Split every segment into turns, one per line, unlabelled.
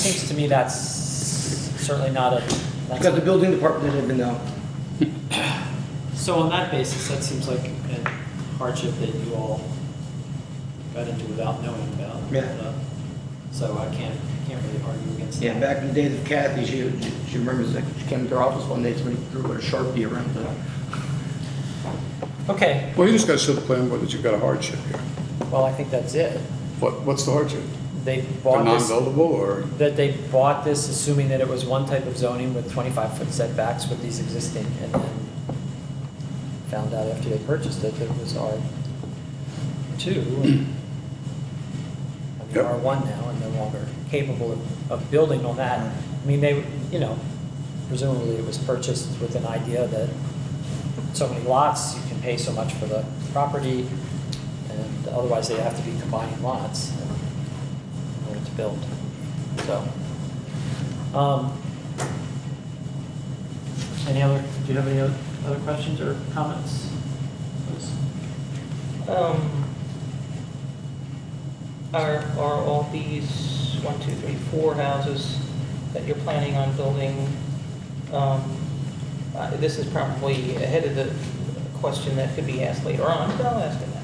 seems to me that's certainly not a, that's
Because the building department didn't even know.
So on that basis, that seems like a hardship that you all got into without knowing about.
Yeah.
Uh, So I can't, can't really argue against that.
Yeah, back in the days of Kathy, she, she remembers, that she came to her office one day, somebody drew a Sharpie around the,
okay,
Well, you just got to show the plan board that you've got a hardship here.
well, I think that's it.
What, what's the hardship?
They
They're
bought this,
non-buildable or,
that they bought this assuming that it was one type of zoning with 25-foot setbacks with these existing, and then found out after they purchased it that it was R2. I mean,
Yep.
R1 now, and no longer capable of- of building on that. I mean, they, you know, presumably it was purchased with an idea that so many lots, you can pay so much for the property, and otherwise they have to be combining lots in order to build, so. um, Any other, do you have any other other questions or comments? Please.
Um, Are, are all these, one, two, three, four houses that you're planning on building, um, uh, this is probably ahead of the question that could be asked later on, but I'll ask it now,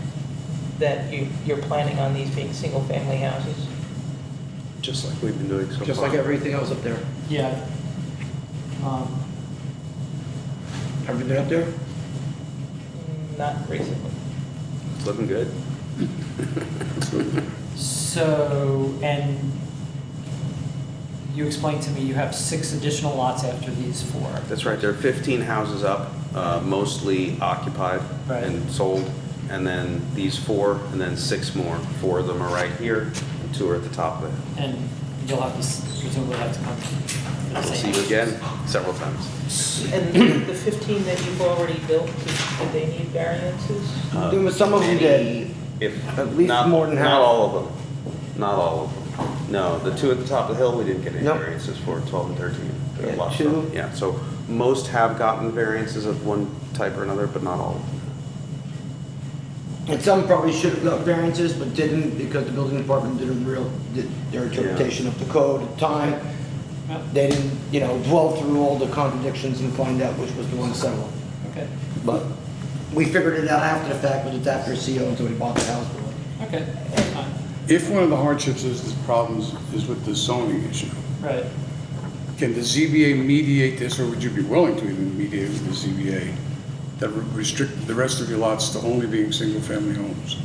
that you, you're planning on these being single-family houses?
just like,
We've been doing so far.
just like everything else up there.
Yeah. Um,
Have you been up there?
Not recently.
It's looking good.
So, and you explained to me you have six additional lots after these four.
That's right, there are 15 houses up, uh, mostly occupied
Right.
and sold, and then these four, and then six more. Four of them are right here, and two are at the top of it.
And you'll have to, s- presumably have to come. for the
We'll
same
see you again several times.
And the 15 that you've already built, did they need variances?
Uh,
There was some of them did.
Any- If,
At least
not,
more than half.
not all of them, not all of them. No, the two at the top of the hill, we didn't get any
Nope.
variances for, 12 and 13. There are
Yeah,
lots of them.
two.
Yeah, so most have gotten variances of one type or another, but not all of them.
And some probably should have got variances, but didn't because the building department didn't real, did their interpretation of the code at the time.
yeah,
They didn't, you know, dwell through all the contradictions and find out which was the one to settle.
Okay,
But we figured it out after the fact, but it's after a CO until we bought the house.
okay, that's fine.
Uh,
if one of the hardships is, is problems is with the zoning issue,
Right.
can the ZBA mediate this, or would you be willing to even mediate with the ZBA that would restrict the rest of your lots to only being single-family homes?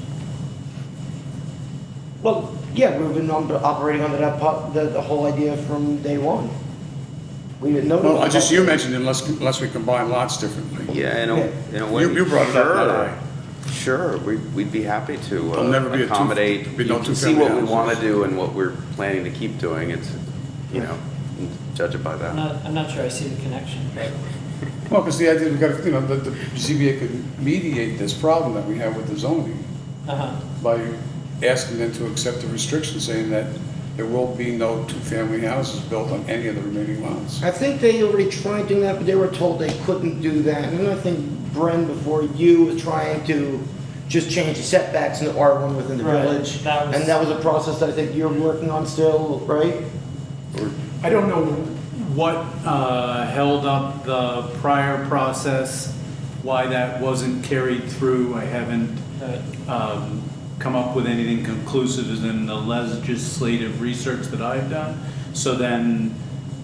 Well, yeah, we've been on- operating under that, po- the, the whole idea from day one. We didn't know. that-
Well, I just, you mentioned unless, unless we combine lots differently.
Yeah, in a, in a way.
You- you brought it up, not I.
Sure, sure, we, we'd be happy to
There'll never be
uh,
a two-
accommodate.
be no
You can See what we
two-family
want to
houses.
do and what we're planning to keep doing, it's, you know, judge it by
I'm
that.
not, I'm not sure I see the connection, but,
Well, because the idea, we got, you know, that the ZBA could mediate this problem that we have with the zoning
uh-huh,
by asking them to accept the restriction saying that there will be no two-family houses built on any of the remaining lots.
I think they already tried doing that, but they were told they couldn't do that. And I think Bren, before you, was trying to just change the setbacks in the R1 within the
Right,
village.
that was-
And that was a process that I think you're working on still, right?
I don't know what uh, held up the prior process, why that wasn't carried through. I haven't
uh,
um, come up with anything conclusive as in the legislative research that I've done. So then,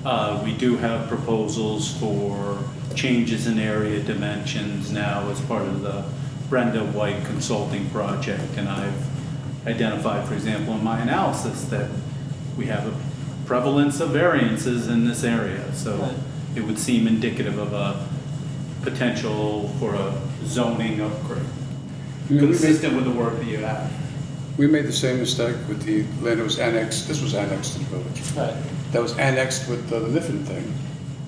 uh, we do have proposals for changes in area dimensions now as part of the Brenda White Consulting Project. And I've identified, for example, in my analysis, that we have a prevalence of variances in this area.
Right.
So it would seem indicative of a potential for a zoning upgrade
You know, we made-
consistent with the work that you have.
We made the same mistake with the land that was annexed, this was annexed to the village.
right.
That was annexed with the Niffen thing.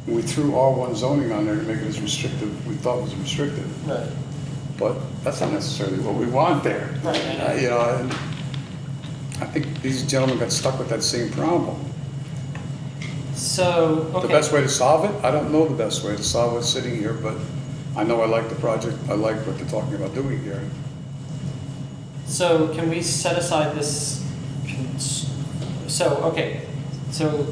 We threw R1 zoning on there to make it as restrictive, we thought was restrictive,
Right.
but that's not necessarily what we want there.
Right, I know.
Uh, You know, and I think these gentlemen got stuck with that same problem.
So,
The
okay.
best way to solve it, I don't know the best way to solve it sitting here, but I know I like the project, I like what they're talking about doing here.
So can we set aside this, cons- so, okay, so